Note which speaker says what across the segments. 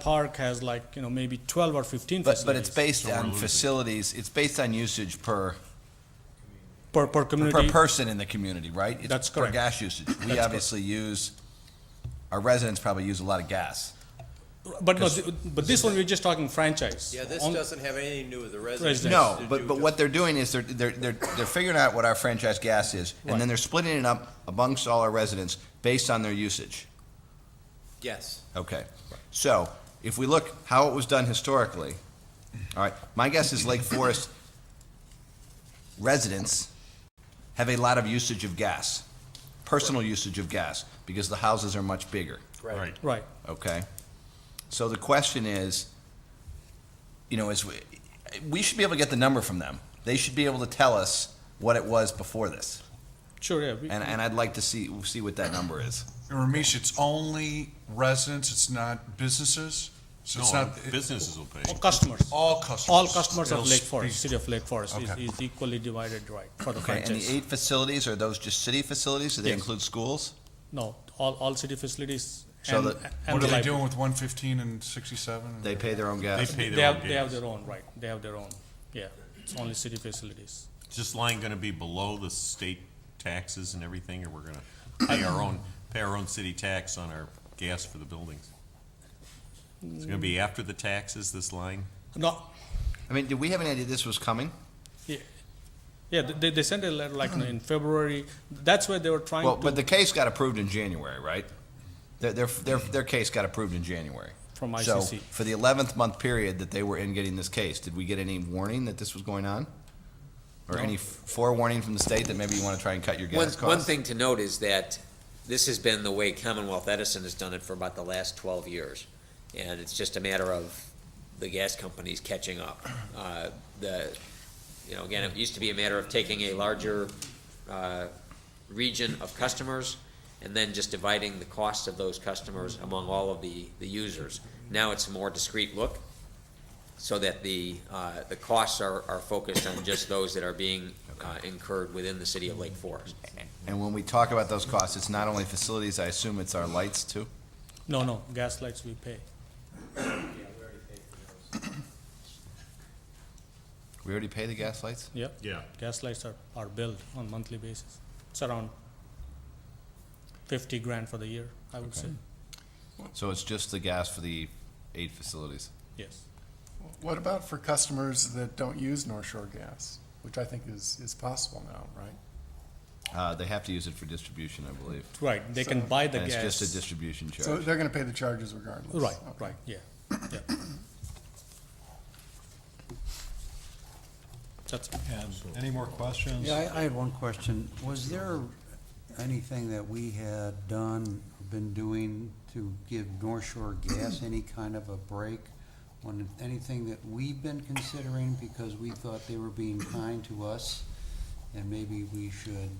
Speaker 1: park has like, you know, maybe twelve or fifteen
Speaker 2: But, but it's
Speaker 1: facilities
Speaker 2: based on facilities, it's based on usage per,
Speaker 1: per, per
Speaker 2: per
Speaker 1: community.
Speaker 2: person in the community, right? It's
Speaker 1: That's
Speaker 2: Per
Speaker 1: correct.
Speaker 2: gas usage. We
Speaker 1: correct.
Speaker 2: obviously use, our residents probably use a lot of gas.
Speaker 1: But no, th- but this one, we're just talking franchise.
Speaker 3: Yeah, this
Speaker 1: On-
Speaker 3: doesn't have anything to do with the residents.
Speaker 1: Residents.
Speaker 2: No,
Speaker 3: To
Speaker 2: but,
Speaker 3: do
Speaker 2: but
Speaker 3: with-
Speaker 2: what they're doing is they're, they're, they're, they're figuring out what our franchise gas is, and then
Speaker 1: Right.
Speaker 2: they're splitting it up amongst all our residents based on their usage.
Speaker 3: Yes,
Speaker 2: Okay. So if we look how it was done historically, all right, my guess is Lake Forest residents have a lot of usage of gas, personal usage of gas, because the houses are much bigger,
Speaker 3: right.
Speaker 1: Right,
Speaker 2: okay? So the question is, you know, is, we, we should be able to get the number from them. They should be able to tell us what it was before this.
Speaker 1: sure, yeah. we-
Speaker 2: And, and I'd like to see, see what that number is.
Speaker 4: And Ramesh, it's only residents, it's not businesses? So it's
Speaker 5: No,
Speaker 4: not,
Speaker 5: businesses will pay.
Speaker 1: All Customers,
Speaker 4: all customers?
Speaker 1: all customers
Speaker 4: It'll
Speaker 1: of Lake
Speaker 4: be-
Speaker 1: Forest, city of Lake Forest is,
Speaker 4: Okay.
Speaker 1: is equally divided, right, for the
Speaker 2: Okay, and the
Speaker 1: franchise.
Speaker 2: eight facilities, are those just city facilities? Do they
Speaker 1: Yes.
Speaker 2: include schools?
Speaker 1: No, all, all city facilities
Speaker 2: So
Speaker 1: and,
Speaker 2: the-
Speaker 1: and
Speaker 4: What
Speaker 1: the
Speaker 4: are they
Speaker 1: library.
Speaker 4: doing with one fifteen and sixty-seven?
Speaker 2: They pay their own
Speaker 5: They
Speaker 2: gas.
Speaker 5: pay
Speaker 1: They
Speaker 5: their
Speaker 1: have,
Speaker 5: own
Speaker 1: they have
Speaker 5: gas.
Speaker 1: their own, right, they have their own, yeah, it's only city facilities.
Speaker 5: Is this line gonna be below the state taxes and everything, or we're gonna pay our own, pay our own city tax on our gas for the buildings? It's gonna be after the taxes, this line?
Speaker 1: No,
Speaker 2: I mean, did we have any idea this was coming?
Speaker 1: yeah, yeah, they, they sent a letter like you know, in February, that's where they were trying to.
Speaker 2: Well, but the case got approved in January, right? Their, their, their, their case got approved in January.
Speaker 1: From
Speaker 2: So
Speaker 1: ICC.
Speaker 2: for the eleventh month period that they were in getting this case, did we get any warning that this was going on? Or any forewarning from the state that maybe you want to try and cut your
Speaker 6: One,
Speaker 2: gas
Speaker 6: one
Speaker 2: costs?
Speaker 6: thing to note is that this has been the way Commonwealth Edison has done it for about the last twelve years. And it's just a matter of the gas companies catching up. Uh, The, you know, again, it used to be a matter of taking a larger, uh, region of customers and then just dividing the cost of those customers among all of the, the users. Now it's a more discrete look, so that the, uh, the costs are, are focused on just those that are being uh, incurred within the city of Lake Forest.
Speaker 2: And when we talk about those costs, it's not only facilities, I assume it's our lights too?
Speaker 1: No, no, gas lights we pay.
Speaker 2: We already pay the gas lights?
Speaker 1: Yep.
Speaker 5: Yeah.
Speaker 1: Gas lights are, are billed on monthly basis. It's around fifty grand for the year, I would say.
Speaker 2: So it's just the gas for the eight facilities?
Speaker 1: Yes.
Speaker 7: What about for customers that don't use North Shore gas, which I think is, is possible now, right?
Speaker 2: Uh, they have to use it for distribution, I believe.
Speaker 1: Right, they can buy the
Speaker 2: And it's
Speaker 1: gas.
Speaker 2: just a distribution charge.
Speaker 7: So they're gonna pay the charges regardless.
Speaker 1: Right,
Speaker 7: Okay.
Speaker 1: right, yeah, yeah. That's,
Speaker 8: And any more questions?
Speaker 9: Yeah, I, I had one question. Was there anything that we had done, been doing to give North Shore Gas any kind of a break? On anything that we've been considering because we thought they were being kind to us? And maybe we should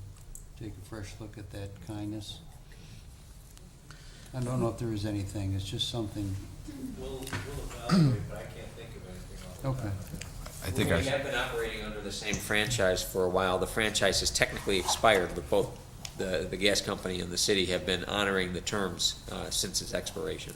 Speaker 9: take a fresh look at that kindness? I don't know if there is anything, it's just something,
Speaker 3: We'll, we'll evaluate, but I can't think of anything off the top of my
Speaker 9: okay.
Speaker 3: head.
Speaker 2: Oh, I think our,
Speaker 6: We have been operating under the same franchise for a while. The franchise has technically expired, but both the, the gas company and the city have been honoring the terms uh, since its expiration.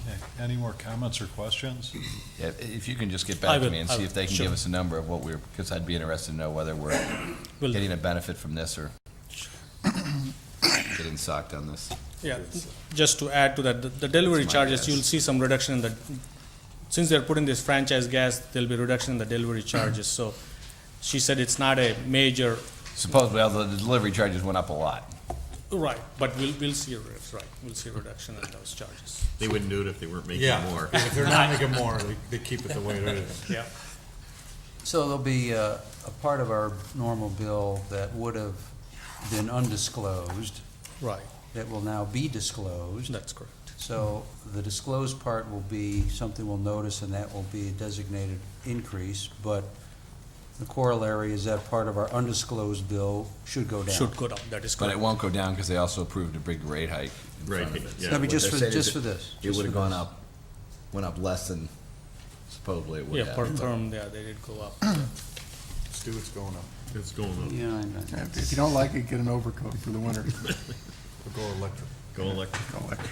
Speaker 8: Okay, Any more comments or questions?
Speaker 2: Yeah, if you can just get
Speaker 1: I
Speaker 2: back to
Speaker 1: will,
Speaker 2: me and
Speaker 1: I
Speaker 2: see
Speaker 1: will,
Speaker 2: if they can
Speaker 1: sure.
Speaker 2: give us a number of what we're, because I'd be interested to know whether we're
Speaker 1: will do.
Speaker 2: getting a benefit from this or getting socked on this.
Speaker 1: Yeah, just to add to that, the- the delivery
Speaker 2: my
Speaker 1: charges,
Speaker 2: guess.
Speaker 1: you'll see some reduction in the, since they're putting this franchise gas, there'll be reduction in the delivery charges, so she said it's not a major,
Speaker 2: Supposedly, although the delivery charges went up a lot.
Speaker 1: right, but we'll, we'll see, a re- right, we'll see a reduction in those charges.
Speaker 5: They wouldn't do it if they weren't making
Speaker 8: Yeah,
Speaker 5: more.
Speaker 8: If they're not making more, they, they keep it the way it is.
Speaker 1: Yeah.
Speaker 9: So there'll be uh, a part of our normal bill that would have been undisclosed
Speaker 1: Right,
Speaker 9: that will now be disclosed.
Speaker 1: that's correct.
Speaker 9: So the disclosed part will be something we'll notice, and that will be a designated increase, but the corollary is that part of our undisclosed bill should go down.
Speaker 1: Should go down, that is
Speaker 2: But it
Speaker 1: correct.
Speaker 2: won't go down because they also approved a big rate hike in front of
Speaker 5: Right,
Speaker 2: it.
Speaker 5: yeah.
Speaker 9: I mean, just
Speaker 2: They're
Speaker 9: for,
Speaker 2: saying
Speaker 9: just for this.
Speaker 2: It
Speaker 9: just
Speaker 2: would have
Speaker 9: for
Speaker 2: gone
Speaker 9: this.
Speaker 2: up, went up less than supposedly it would
Speaker 1: Yeah,
Speaker 2: have.
Speaker 1: per term, yeah, they did go up.
Speaker 8: Stu, it's going up.
Speaker 5: It's going up.
Speaker 9: Yeah, I know.
Speaker 7: If you don't like it, get an overcoat for the winter.
Speaker 8: We'll go electric.
Speaker 5: Go electric.
Speaker 7: Go electric.